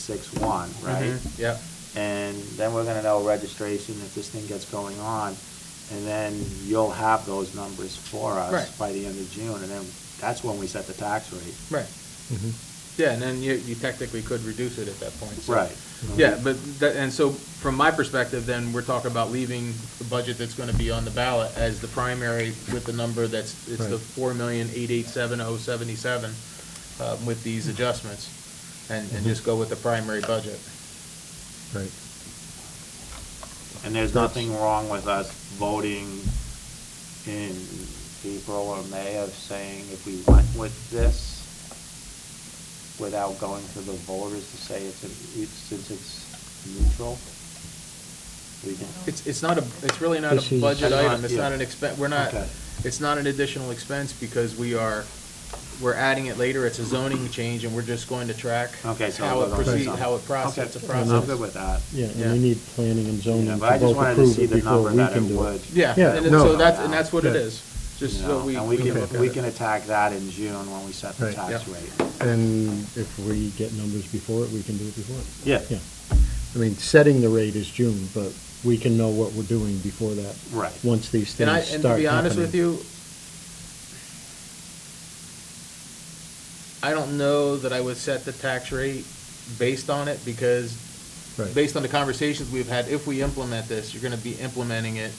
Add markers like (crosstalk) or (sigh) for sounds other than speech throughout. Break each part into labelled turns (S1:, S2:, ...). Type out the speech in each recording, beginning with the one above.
S1: 4861, right?
S2: Mhm, Yep,
S1: And then we're gonna know registration, if this thing gets going on, and then you'll have those numbers for us
S2: Right.
S1: by the end of June, and then that's when we set the tax rate.
S2: right.
S3: Mm-hmm.
S2: Yeah, and then you, you technically could reduce it at that point. so-
S1: Right.
S2: Yeah, but that, and so from my perspective, then we're talking about leaving the budget that's gonna be on the ballot as the primary with the number that's, it's the
S3: Right.
S2: four million, eight, eight, seven, oh, seventy-seven, uh, with these adjustments. And, and just go with the primary budget.
S3: Right.
S1: And there's nothing wrong with us voting in April or May of saying if we went with this without going to the voters to say it's, a- it's- since it's neutral. We can,
S2: It's, it's not a, it's really not
S3: This
S2: a
S3: is-
S2: budget
S1: That's
S2: item,
S1: not-
S2: it's not
S1: yeah.
S2: an expen, we're not,
S1: Okay.
S2: it's not an additional expense because we are, we're adding it later, it's a zoning change, and we're just going to track
S1: okay, so.
S2: how
S1: we'll
S2: it
S1: go to
S2: proceeds,
S1: some-
S2: how it
S1: Okay,
S2: processes, it's a
S1: I'm good
S2: process.
S1: with that.
S3: Yeah, and
S2: Yeah.
S3: we need planning and zoning
S1: Yeah,
S3: to
S1: but I just
S3: both
S1: wanted to
S3: approve
S1: see
S3: it
S1: the
S3: before
S1: number
S3: we
S1: that
S3: can
S1: it
S3: do it.
S1: would.
S2: Yeah,
S3: Yeah,
S2: and it-
S3: no.
S2: so that's, and that's what it
S3: Yeah.
S2: is, just
S1: you
S2: so
S1: know,
S2: we.
S1: And we
S2: can look
S1: can,
S2: at
S1: we
S2: it.
S1: can attack that in June when we set the
S3: Right.
S1: tax
S2: Yep.
S1: rate.
S3: And if we get numbers before it, we can do it before it.
S1: Yeah,
S3: Yeah. I mean, setting the rate is June, but we can know what we're doing before that,
S1: right.
S3: once these
S2: And I,
S3: things
S2: and to
S3: start
S2: be honest with
S3: happening.
S2: you, I don't know that I would set the tax rate based on it, because
S3: Right,
S2: based on the conversations we've had, if we implement this, you're gonna be implementing it,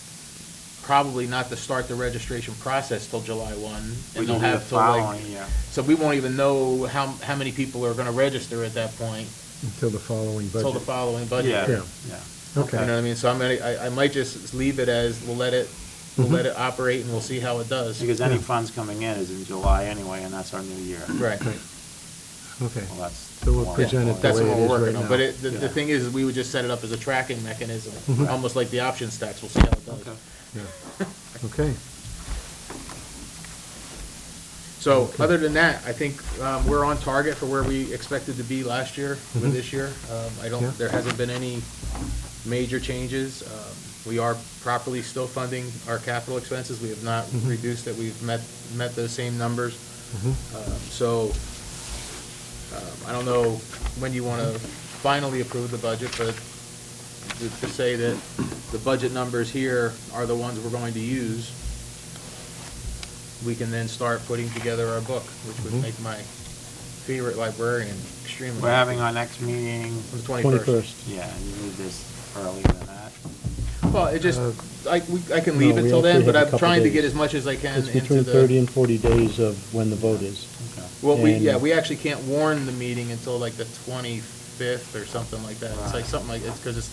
S2: probably not to start the registration process till July one.
S1: We
S2: And
S1: can
S2: they'll
S1: do the
S2: have till like,
S1: following year.
S2: so we won't even know how, how many people are gonna register at that point,
S3: until the following budget.
S2: till the following budget.
S1: Yeah, yeah.
S3: Yeah.
S2: You know
S3: Okay,
S2: what I mean? So I'm gonna, I, I might just leave it as, we'll let it, we'll
S3: Mm-hmm.
S2: let it operate and we'll see how it does.
S1: Because any
S3: Yeah.
S1: funds coming in is in July anyway, and that's our new year.
S2: Right.
S3: okay,
S1: Well, that's.
S3: So we'll
S1: more
S3: present it
S2: That's
S3: the
S2: what
S3: way it
S2: we're
S3: is
S2: working
S3: right
S2: on.
S3: now.
S2: But it, the, the
S1: Yeah.
S2: thing is, we would just set it up as a tracking mechanism,
S3: Mhm.
S2: almost like the options tax. We'll see how it
S1: Okay.
S2: does.
S3: yeah, okay.
S2: So other than that, I think, um, we're on target for where we expected to be last year with this year. Um, I
S3: Yeah.
S2: don't, there hasn't been any major changes. Um, We are properly still funding our capital expenses. We have not
S3: Mhm.
S2: reduced it. We've met, met those same numbers.
S3: Mhm.
S2: Um, So, um, I don't know when you want to finally approve the budget, but to to say that the budget numbers here are the ones we're going to use, we can then start putting together our book, which would
S3: Mhm.
S2: make my favorite librarian extremely
S1: Mm-hmm. We're
S2: happy.
S1: having our next meeting,
S2: On the
S3: Twenty-first.
S1: yeah, and you need this earlier than that.
S2: Well, it just,
S3: Uh,
S2: I, we- I can
S3: no,
S2: leave it
S3: we
S2: till then,
S3: actually
S2: but
S3: have a
S2: I'm
S3: couple
S2: trying to
S3: days.
S2: get as much as I can
S3: It's
S2: into
S3: between thirty
S2: the.
S3: and forty days of when the vote is.
S1: Okay.
S2: Well, we, yeah,
S3: and-
S2: we actually can't warn the meeting until like the twenty-fifth or something like that. It's like
S1: Right.
S2: something like, it's because it's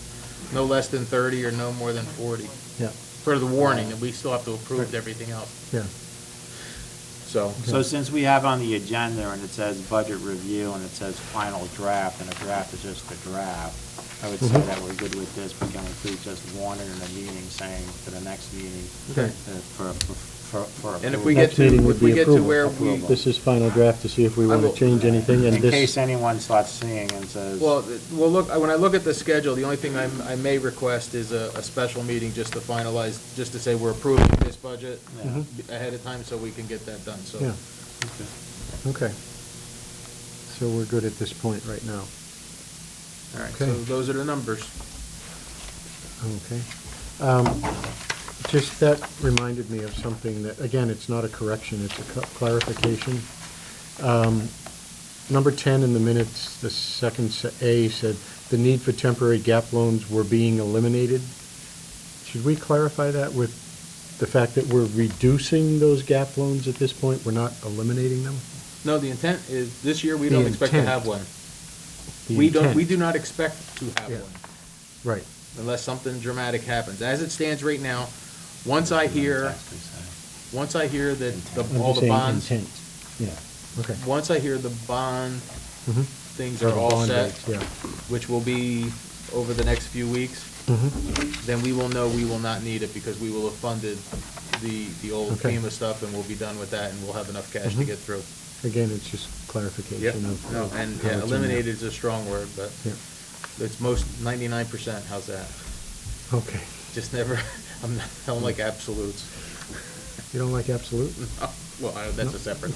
S2: no less than thirty or no more than forty
S3: Yeah,
S2: for the warning, and we still have to approve everything else,
S3: yeah,
S2: so.
S1: So since we have on the agenda and it says budget review and it says final draft, and a draft is just a draft, I would say
S3: Mhm.
S1: that we're good with this, but can we please just warn it in the meeting saying for the next meeting?
S2: Okay.
S1: uh, For, for, for.
S2: And if
S1: approval.
S2: we get
S3: Next
S2: to,
S3: meeting would
S2: if we
S3: be
S2: get to
S3: approval.
S2: where we,
S1: Approval.
S3: this is final draft to see if we
S2: I
S3: want to
S2: will-
S3: change anything, and
S1: In case
S3: this,
S1: anyone starts seeing and says.
S2: well, th- well, look, when I look at the schedule, the only thing I'm, I may request is a, a special meeting just to finalize, just to say we're approving this budget
S1: Yeah.
S3: Mhm.
S2: b- ahead of time so we can get that done, so.
S3: yeah,
S1: Okay.
S3: okay. So we're good at this point right now,
S2: All right, so
S3: Okay.
S2: those are the numbers.
S3: okay. Um, Just that reminded me of something that, again, it's not a correction, it's a cl- clarification. Um, Number 10 in the minutes, the second se- A said, "The need for temporary gap loans were being eliminated." Should we clarify that with the fact that we're reducing those gap loans at this point? We're not eliminating them?
S2: No, the intent is, this year, we
S3: The
S2: don't expect to
S3: intent.
S2: have one.
S3: The
S2: We don't, we
S3: intent.
S2: do not expect to have
S3: Yeah.
S2: one
S3: Right,
S2: unless something dramatic happens. As it stands right now, once I hear,
S1: Tax rate, sorry.
S2: once I hear that the,
S3: I'm
S2: all the
S3: just saying
S2: bonds,
S3: intent, yeah, okay.
S2: once I hear the bond
S3: Mhm.
S2: things
S3: Or
S2: are
S3: the
S2: all
S3: bond
S2: set,
S3: rates, Yeah.
S2: which will be over the next few weeks,
S3: Mhm.
S2: then we will know we will not need it because we will have funded the, the old
S3: Okay.
S2: FEMA stuff and we'll be done with that and we'll have enough cash to
S3: Mhm.
S2: get through.
S3: Again, it's just
S2: Yeah,
S3: clarification of.
S2: no,
S3: of
S2: and
S3: how
S2: yeah,
S3: it's in there.
S2: eliminated is a strong word, but
S3: Yeah,
S2: it's most, ninety-nine percent, how's that?
S3: okay.
S2: Just never, (laughs) I'm not, I don't like absolutes. Mm-hmm.
S3: You don't like absolute?
S2: Well, I- that's a
S3: Nope.
S2: separate,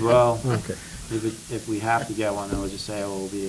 S1: Well,
S3: Okay.
S1: If, it- if we have to get one, then we'll just say it will be